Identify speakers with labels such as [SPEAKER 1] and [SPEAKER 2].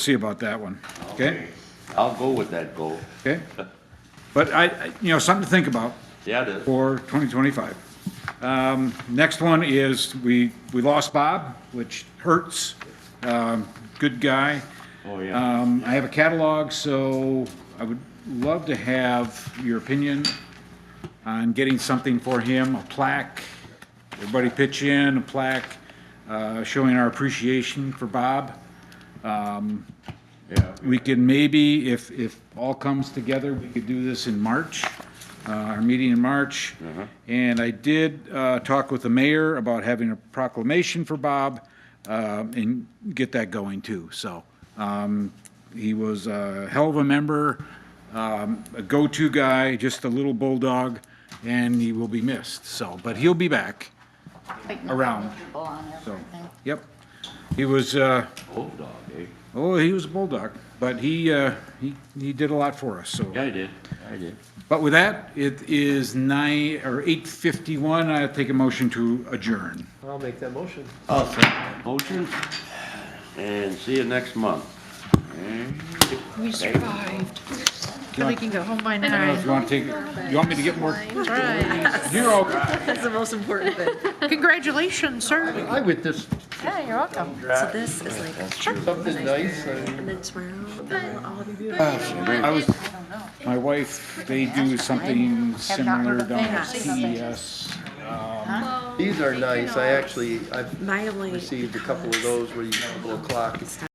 [SPEAKER 1] see about that one, okay?
[SPEAKER 2] I'll go with that goal.
[SPEAKER 1] Okay? But I, I- you know, something to think about
[SPEAKER 2] Yeah, it is.
[SPEAKER 1] for 2025. Um, Next one is, we, we lost Bob, which hurts. Um, Good guy.
[SPEAKER 2] Oh, yeah.
[SPEAKER 1] Um, I have a catalog, so I would love to have your opinion on getting something for him, a plaque. Everybody pitch in, a plaque uh, showing our appreciation for Bob.
[SPEAKER 2] Yeah.
[SPEAKER 1] We could maybe, if, if all comes together, we could do this in March, uh, our meeting in March. And I did uh, talk with the mayor about having a proclamation for Bob um, and get that going too. So um, he was a hell of a member, um, a go-to guy, just a little bulldog, and he will be missed. So, but he'll be back,
[SPEAKER 3] Like,
[SPEAKER 1] around.
[SPEAKER 3] knocking people on
[SPEAKER 1] so,
[SPEAKER 3] everything.
[SPEAKER 1] yep. He was, uh,
[SPEAKER 2] Old dog, eh?
[SPEAKER 1] Oh, he was a bulldog, but he, uh, he, he did a lot for us, so.
[SPEAKER 2] Yeah, I did. I did.
[SPEAKER 1] But with that, it is nine, or eight fifty-one, I take a motion to adjourn.
[SPEAKER 4] I'll make that motion.
[SPEAKER 2] Motion, and see you next month.
[SPEAKER 5] We survived. I can go home by
[SPEAKER 1] I don't know if
[SPEAKER 5] now.
[SPEAKER 1] you want to take, you want me to get more,
[SPEAKER 5] Right.
[SPEAKER 1] you're all right.
[SPEAKER 5] That's the most important thing. Congratulations, sir.
[SPEAKER 4] I with this,
[SPEAKER 3] Yeah, you're welcome.
[SPEAKER 5] So this is like,
[SPEAKER 4] something nice, I mean,
[SPEAKER 5] and then tomorrow.
[SPEAKER 1] I was, my wife, they do something similar E down at CES.
[SPEAKER 4] these are nice, I actually, I've
[SPEAKER 5] My only.
[SPEAKER 4] received a couple of those where you have a little clock.